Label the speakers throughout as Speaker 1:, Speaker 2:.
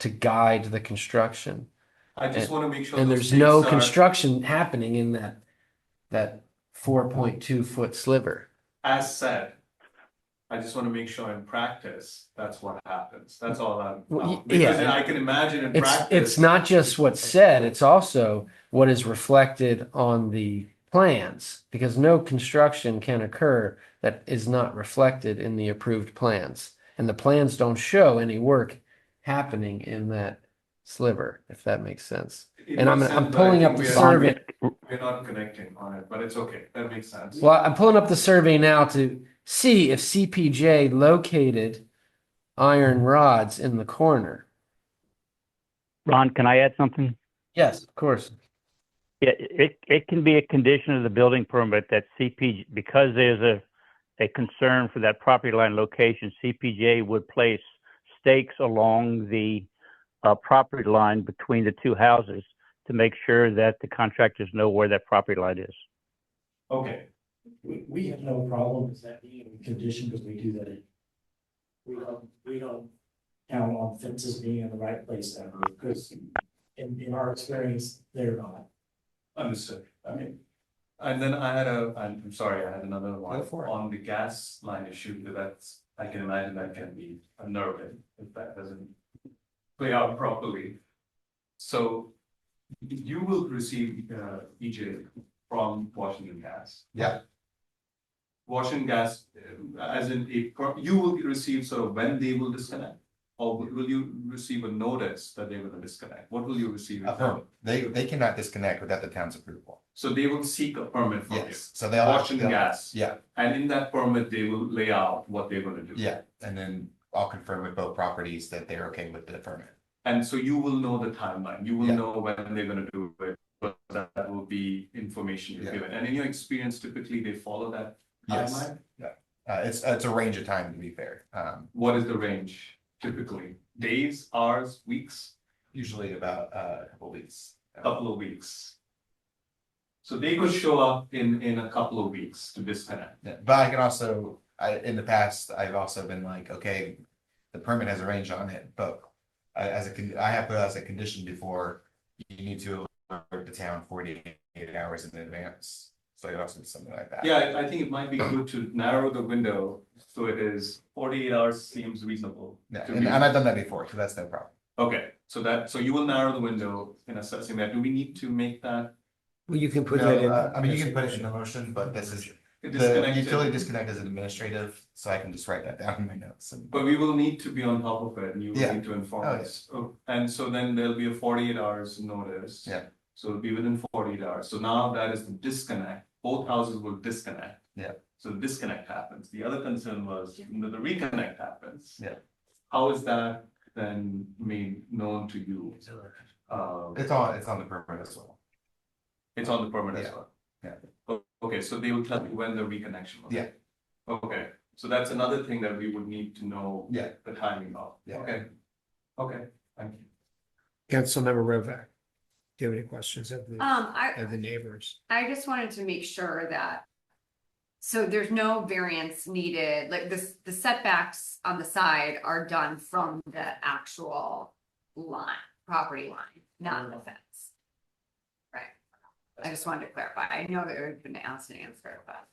Speaker 1: to guide the construction.
Speaker 2: I just
Speaker 1: And-
Speaker 2: wanna make sure.
Speaker 1: And
Speaker 2: those
Speaker 1: there's no
Speaker 2: stakes are-
Speaker 1: construction happening in that, that four point two foot sliver.
Speaker 2: As said, I just wanna make sure in practice, that's what happens, that's all I'm,
Speaker 1: Well, y-
Speaker 2: I'm- because
Speaker 1: yeah.
Speaker 2: I can imagine in
Speaker 1: It's,
Speaker 2: practice.
Speaker 1: it's not just what's said, it's also what is reflected on the plans. Because no construction can occur that is not reflected in the approved plans. And the plans don't show any work happening in that sliver, if that makes sense.
Speaker 2: it
Speaker 1: And I'm,
Speaker 2: makes
Speaker 1: I'm
Speaker 2: sense, but I
Speaker 1: pulling
Speaker 2: think
Speaker 1: up the
Speaker 2: we are-
Speaker 1: survey.
Speaker 2: We're not connecting on it, but it's okay, that makes sense.
Speaker 1: Well, I'm pulling up the survey now to see if CPJ located iron rods in the corner.
Speaker 3: Ron, can I add something?
Speaker 1: Yes, of course.
Speaker 3: Yeah, it, it can be a condition of the building permit that CPG, because there's a, a concern for that property line location, CPJ would place stakes along the, uh, property line between the two houses to make sure that the contractors know where that property line is.
Speaker 2: Okay,
Speaker 4: We, we have no problem with that being a condition because we do that. in- We don't, we don't count on fences being in the right place ever because in, in our experience, they're not.
Speaker 2: understood, okay. And then I had a, I'm I'm sorry, I had another one
Speaker 1: Go for it.
Speaker 2: on the gas line issue, because that's, I can imagine that can be unnerving if that doesn't play out properly. So you will receive, uh, EJ from Washington Gas.
Speaker 5: Yeah.
Speaker 2: Washington Gas, uh, as in, a pro- you will receive sort of when they will disconnect? Or will- will you receive a notice that they're gonna disconnect? What will you receive?
Speaker 5: A permit. They, they cannot disconnect without the town's approval.
Speaker 2: So they will seek a permit from you?
Speaker 5: Yes, so they'll. have-
Speaker 2: Washington
Speaker 5: they'll-
Speaker 2: Gas.
Speaker 5: Yeah,
Speaker 2: And in that permit, they will lay out what they're gonna do.
Speaker 5: yeah, and then I'll confirm with both properties that they're okay with the permit.
Speaker 2: And so you will know the timeline, you will
Speaker 5: Yeah.
Speaker 2: know when they're gonna do it, but that that will be information you're
Speaker 5: Yeah.
Speaker 2: given. And in your experience, typically they follow that
Speaker 5: Yes,
Speaker 2: timeline?
Speaker 5: uh, it's, it's a range of time to be fair, um,
Speaker 2: What is the range typically? Days, hours, weeks,
Speaker 5: usually about, uh, a couple weeks.
Speaker 2: couple of weeks? So they could show up in, in a couple of weeks to disconnect.
Speaker 5: Yeah, But I can also, I, in the past, I've also been like, okay, the permit has a range on it, but I, as a, con- I have put as a condition before, you need to alert the town forty-eight hours in advance. So it also is something like that.
Speaker 2: Yeah, I- I think it might be good to narrow the window, so it is forty-eight hours seems reasonable.
Speaker 5: Yeah,
Speaker 2: to
Speaker 5: and
Speaker 2: be-
Speaker 5: and I've done that before, so that's no problem.
Speaker 2: Okay, so that, so you will narrow the window in assessing that. Do we need to make that
Speaker 4: Well, you can
Speaker 5: No, uh, I mean, you can put it in the motion, but this is, the utility
Speaker 2: disconnected?
Speaker 5: disconnect is administrative, so I can just write that down in my notes. and-
Speaker 2: But we will need to be on top of it and you will
Speaker 5: Yeah.
Speaker 2: need to inform
Speaker 5: Oh,
Speaker 2: us. Oh, And so then there'll be a forty-eight hours notice.
Speaker 5: Yeah.
Speaker 2: So it'll be within forty-eight hours. So now that is the disconnect. Both houses will disconnect.
Speaker 5: Yeah.
Speaker 2: So the disconnect happens. The other concern was that the reconnect happens.
Speaker 5: Yeah.
Speaker 2: How is that then made known to you? Uh,
Speaker 5: It's on, it's on the permit as well.
Speaker 2: It's on the permit as
Speaker 5: Yeah.
Speaker 2: well?
Speaker 5: Yeah.
Speaker 2: O- Okay, so they will tell you when the reconnection was?
Speaker 5: Yeah.
Speaker 2: Okay, so that's another thing that we would need to know.
Speaker 5: Yeah.
Speaker 2: The timing of.
Speaker 5: Yeah.
Speaker 2: Okay, okay, thank you.
Speaker 6: Councilmember Rovak, do you have any questions of the,
Speaker 7: Um, I,
Speaker 6: of the neighbors?
Speaker 7: I just wanted to make sure that. So there's no variance needed, like this, the setbacks on the side are done from the actual line, property line, not the fence. Right, I just wanted to clarify, I know that it been asked and answered, but,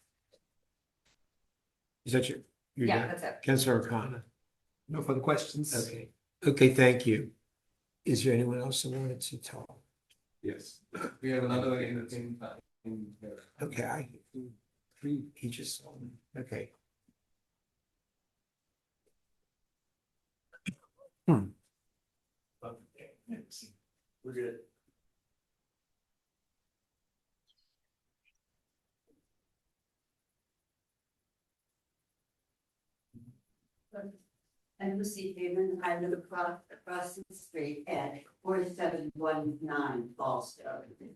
Speaker 6: Is that your, your,
Speaker 7: yeah, that's it.
Speaker 6: Councilor O'Connor?
Speaker 8: No further questions?
Speaker 6: Okay, okay, thank you. Is there anyone else that wanted to talk?
Speaker 2: Yes. We have another in, in, in here.
Speaker 6: Okay, I, he just, okay.
Speaker 4: We're good.
Speaker 9: I'm Lucy Freeman. I live across, across the street at forty-seven one nine Falls Road.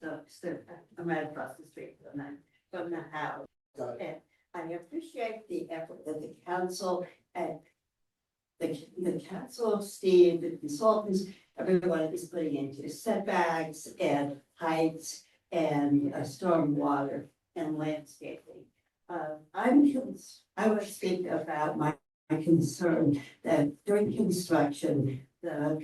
Speaker 9: So, so I'm right across the street from the, from the house. And I appreciate the effort that the council and the, the council, Steve, the consultants, everyone is putting into setbacks and heights and uh, stormwater and landscaping. Uh, I'm, cons- I would speak about my my concern that during construction, the